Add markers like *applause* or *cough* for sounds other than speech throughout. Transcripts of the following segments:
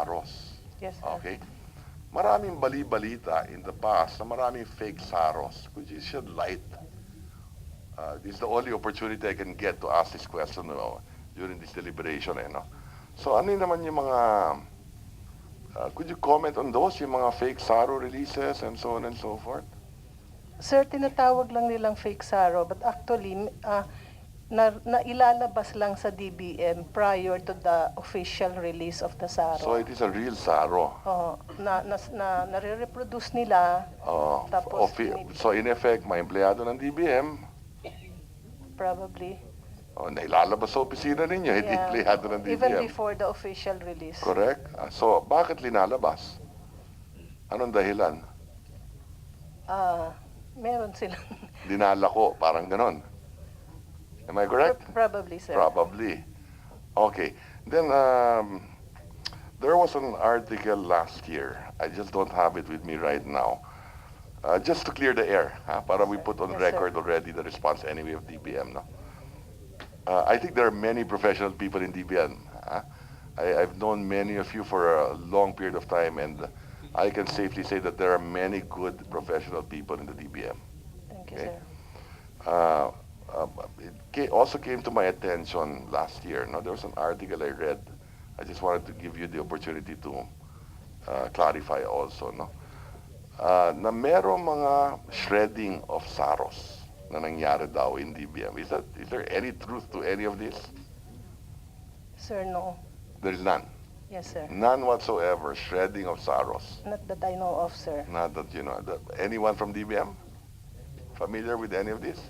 Saros. Yes, sir. Okay? Maraming bali-balita in the past na maraming fake Saros, which is shed light. Uh, this is the only opportunity I can get to ask this question no, during this deliberation. Eh, no? So ano yun naman yung mga... uh, could you comment on those, yung mga fake Saro releases and so on and so forth? Sir, tinatawag lang nilang fake SARO, but actually, ah, na, nailalabas lang sa DBM prior to the official release of the So SARO. it is a real Saro. Oo, na, na, na, nare-reproduce nila, Oh, Tapos, ofi- so in effect, may empleyado ng DBM, probably. oh, nailalabas sa opisina ninyo, hindi Yeah. empleyado ng DBM. Even before the official release. Correct. Ah, So, bakit linalabas? Anong dahilan? Ah, meron silang, Dinala ko, parang ganon. Am I correct? *laughs* probably, sir. Probably. Okay. Then, um, there was an article last year. I just don't have it with me right now. Uh, just to clear the air, ha, para we put on Yes, sir. record already the response anyway of DBM. No? Uh, I think there are many professional people in DBM. ha. I, I've known many of you for a long period of time, and I can safely say that there are many good professional people in the DBM Thank you, Okay. sir. uh, uh, it ca- also came to my attention last year. No, there was an article I read. I just wanted to give you the opportunity to uh, clarify also. No, uh, na merong mga shredding of saros na nangyari daw in DBM. Is that is there any truth to any of this? Sir, no. There's none, Yes, sir. none whatsoever. Shredding of saros. Not that I know of, sir. Not that you know. That, anyone from DBM familiar with any of this?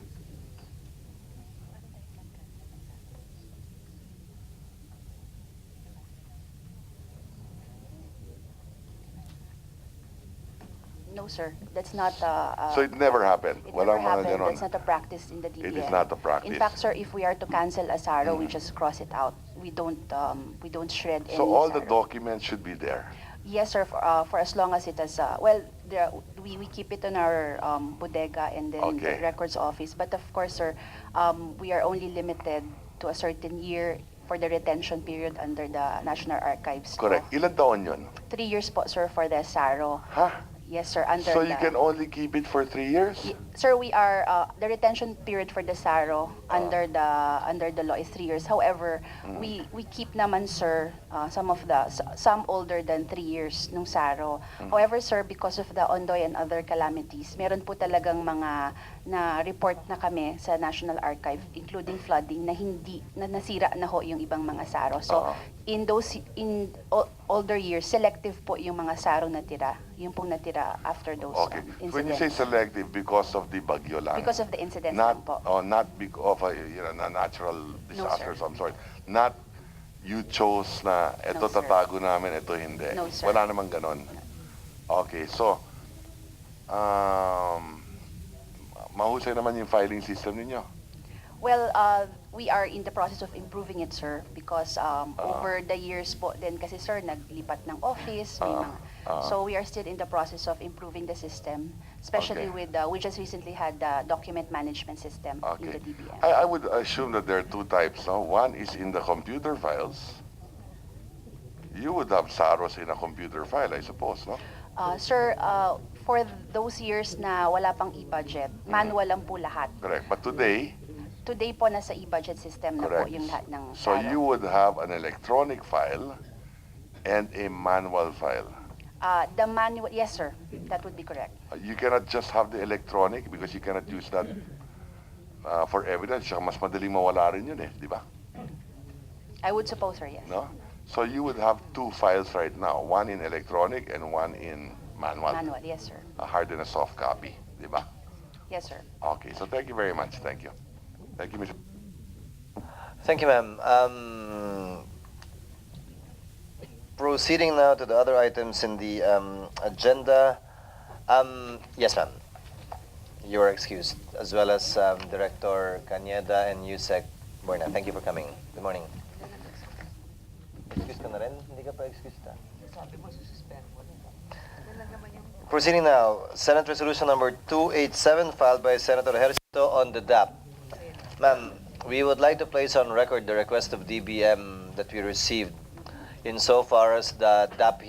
No, sir. That's not uh, uh, So it never happened. it Walang never mga happened. ganon. That's not a practice in the DBM. It is not a practice. Mm. In fact, sir, if we are to cancel a SARO, we just cross it out. We don't um, we don't shred any So all the SARO. documents should be there. Yes, sir. For, uh, for as long as it is uh, well, there, we, we keep it in our um, bodega and then Okay. the records office. But of course, sir, um, we are only limited to a certain year for the retention period under the National Archives. law. Correct. Ilan taon yun? Three years, po, sir, for the SARO. Ha? Yes, sir. Under So you the- can only keep it for three years? Y- Sir, we are uh, the retention period for the SARO under Ah. the under the law is three years. However, Mm. we we keep naman sir uh, some of the s- some older than three years nung SARO. Mm. However, sir, because of the Ondoy and other calamities, meron po talagang mga na report na kami sa National Archive including flooding na hindi na nasira na ho yung ibang mga SARO. So Ah. in those in o- older years, selective po yung mga SARO natira, yung pong natira after those Okay. um, When you say incidents. selective, because of the bagyo lang? Because of the incidents lang Ah. Not, po. oh, not because of a, you know, na- natural disaster of sir. some sort. Not you chose na ito No, sir. tatago namin, ito hindi. No, sir. Wala namang ganon. Okay, so, um, mahusay naman yung filing system ninyo. Well, uh, we are in the process of improving it, sir, because um, Ah. over the years po din kasi, sir, naglipat ng office, may Ah, mga... ah. So we are still in the process of improving the system, especially Okay. with, uh, we just recently had the document management system in Okay. the DBM. I, I would assume that there are two types. No? One is in the computer files. You would have SAROS in a computer file, I suppose, no? Uh, sir, uh, for those years na wala pang e-budget, Mm-hmm. manual lang po lahat. Correct. But today, Today po, nasa e-budget system na po correct. yung lahat ng... So SARO. you would have an electronic file and a manual file. Uh, the manual, yes, sir, that would be correct. Uh, You cannot just have the electronic because you cannot use that uh, for evidence. Saka mas madaling mawala rin yun eh, di ba? I would suppose, sir, yes. No? So you would have two files right now, one in electronic and one in Manual, yes, sir. a hard and a soft copy, di ba? Yes, sir. Okay, so thank you very much. Thank you. Thank you, Mr. Thank you, ma'am. Um, proceeding now to the other items in the um, agenda. Um, yes, ma'am. You are excused, as well as um, Director Cañeda and Yusek Buena. Thank you for coming. Good morning. Excuse ka na rin? Hindi ka pa excused ah. Proceeding now, Senate Resolution Number 287 filed by Senator Hercito on the DAP. Ma'am, we would like to place on record the request of DBM that we received insofar as the DAP